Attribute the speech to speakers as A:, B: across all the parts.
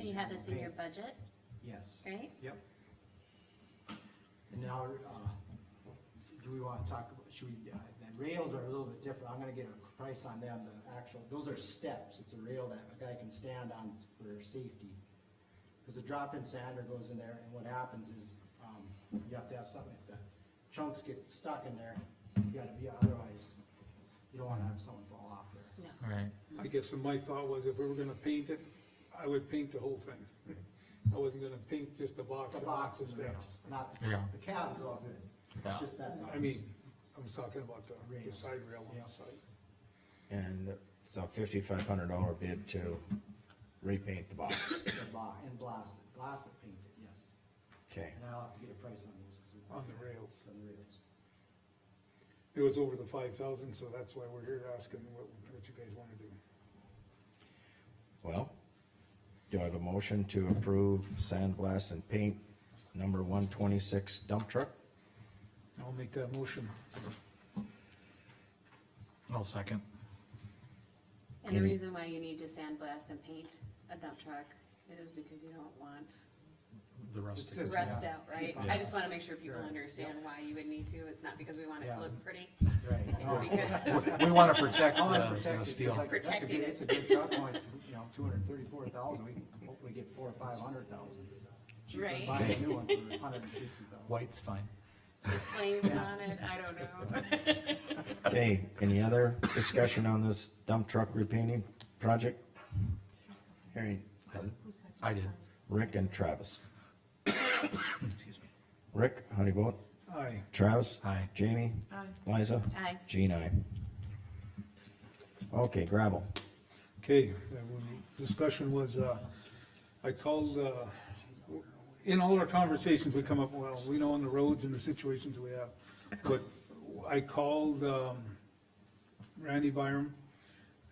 A: You have this in your budget,
B: Yes,
A: right?
B: yep. And now, uh, do we wanna talk, about- should we, uh, the rails are a little bit different, I'm gonna get a price on them, the actual, those are steps, it's a rail that a guy can stand on for safety. Cause the drop-in sander goes in there, and what happens is, um, you have to have something, if the chunks get stuck in there, you gotta be, otherwise, you don't wanna have someone fall off there.
A: No.
C: Right,
D: I guess my thought was if we were gonna paint it, I would paint the whole thing. I wasn't gonna paint just the box.
B: The
D: and
B: box
D: the
B: is rails,
D: steps.
B: not, the-
C: Yeah.
B: the cab is all good,
C: Yeah.
B: it's just that.
D: I mean, I'm talking about the, the
B: Rail.
D: side rail on
B: Yeah.
D: the side.
E: And it's a fifty-five hundred dollar bid to repaint the box.
B: And bla- and blast it, blast it, paint it, yes.
E: Okay,
B: And I'll have to get a price on those. 'cause we-
D: On the rails.
B: On the rails.
D: It was over the five thousand, so that's why we're here asking what, what you guys wanna do.
E: well, do I have a motion to approve sandblast and paint number one twenty-six dump truck?
D: I'll make that motion.
C: I'll second.
A: And the
E: Any-
A: reason why you need to sandblast and paint a dump truck is because you don't want
C: The
D: It says-
A: rust out, right? I
C: Yeah.
A: just wanna make sure people
B: Right.
A: understand why you would need to. It's not because we want it
B: Yeah. Oh.
A: to look pretty.
B: Right.
A: It's because,
C: We wanna protect
B: I wanna
C: the,
B: protect it,
C: the
B: 'cause
C: steel.
B: like, that's a
A: Protected.
B: good- It's a good truck, only, you know, two hundred and thirty-four thousand, we can hopefully get four or five hundred thousand. Cheaper than
A: Right.
B: Buying a new one for a hundred and fifty thousand.
C: White's fine.
A: it's got flames on it, I don't know.
E: Okay, any other discussion on this dump truck repainting project? Hearing
C: I did.
E: Rick and Travis. Rick, how do you vote?
D: Aye.
E: Travis?
C: Aye.
E: Jamie? Liza?
A: Aye.
E: Jean, aye. Okay, gravel.
D: Okay, the discussion was, uh, I called, uh, in all our conversations, we come up, well, we know on the roads and the situations we have, but I called, um, Randy Byram.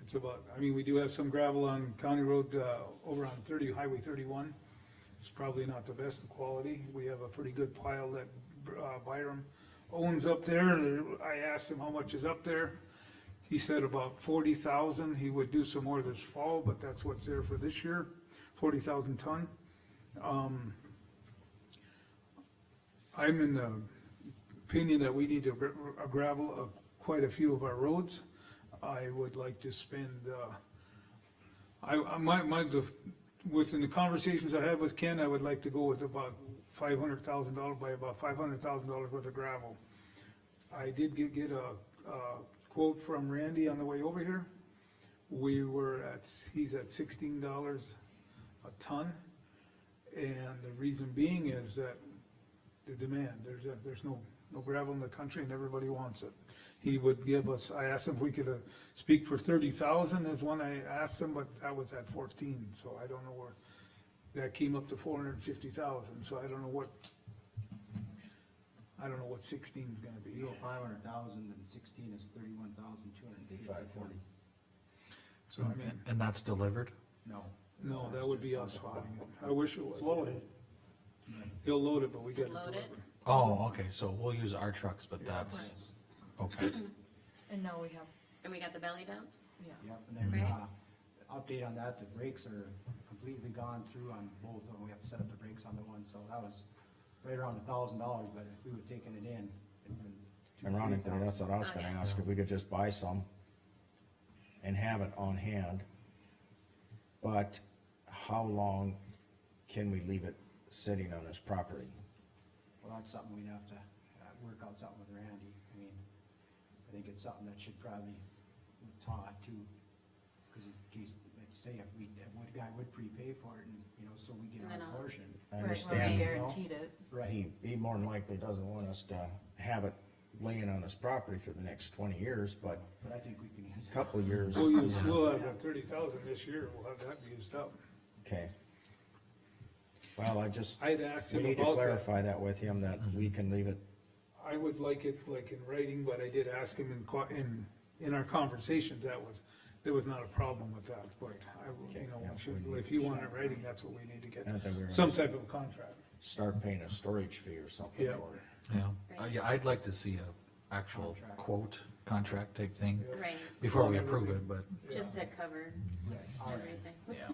D: It's about, I mean, we do have some gravel on County Road, uh, over on thirty, Highway thirty-one. It's probably not the best of quality. We have a pretty good pile that, uh, Byram owns up there. I asked him how much is up there. He said about forty thousand, he would do some more this fall, but that's what's there for this year, forty thousand ton. Um, I'm in the opinion that we need to gra- uh, gravel uh, quite a few of our roads. I would like to spend, uh, I, I, my, my, the- within the conversations I had with Ken, I would like to go with about five hundred thousand dollars, by about five hundred thousand dollars worth of gravel. I did get, get a, a quote from Randy on the way over here. We were at, he's at sixteen dollars a ton. And the reason being is that the demand, there's, a- there's no, no gravel in the country and everybody wants it. He would give us, I asked him if we could, uh, speak for thirty thousand is one I asked him, but that was at fourteen, so I don't know where. That came up to four hundred and fifty thousand, so I don't know what, I don't know what sixteen's gonna be.
B: You go five hundred thousand and sixteen is thirty-one thousand, two hundred and fifty, forty.
D: So I mean,
C: And that's delivered?
B: No.
D: no, that would be us hauling it. I wish it was. Loaded. He'll load it, but we gotta
A: Load
D: deliver.
A: it.
C: Oh, okay, so we'll use our trucks, but that's, okay.
F: And now we have,
A: And we got the belly dumps?
F: yeah,
B: Yep, and then, uh,
A: Right.
B: update on that, the brakes are completely gone through on both of them, we have to set up the brakes on the one, so that was right around a thousand dollars, but if we would've taken it in, it'd been. two,
E: Ironically,
B: three
E: that's
B: thousand.
E: what I was gonna ask, if we could just buy some and have it on hand. But how long can we leave it sitting on his property?
B: Well, that's something we'd have to, uh, work out something with Randy, I mean, I think it's something that should probably with Todd too, cause in case, like you say, if we, if one guy would prepay for it and, you know, so we get
A: And then
B: our
A: I'll-
B: portion.
E: I
F: right,
E: understand.
F: where we
B: you know?
F: guaranteed it.
B: Right,
E: He, he more than likely doesn't want us to have it laying on his property for the next twenty years, but
B: but I think we can use.
E: a
B: it.
E: couple of years,
D: We'll use, we'll have that thirty thousand this year, we'll have that used up.
E: okay. Well, I just,
D: I'd asked
E: we
D: him
E: need to
D: about that.
E: clarify that with him, that we can leave it
D: I would like it like in writing, but I did ask him in, co- in, in our conversations, that was, there was not a problem with that, but I, you know, we should- if you want it writing, that's what we need to get,
E: Not that we're-
D: some type of contract.
E: start paying a storage fee or something
D: Yeah.
E: for it.
C: Yeah, Uh, yeah, I'd like to see a actual
B: Contract.
C: quote, contract type thing
D: Yeah.
A: Right,
C: before we approve it, but.
A: just to cover
B: Right, all right.
A: everything.
C: Yeah.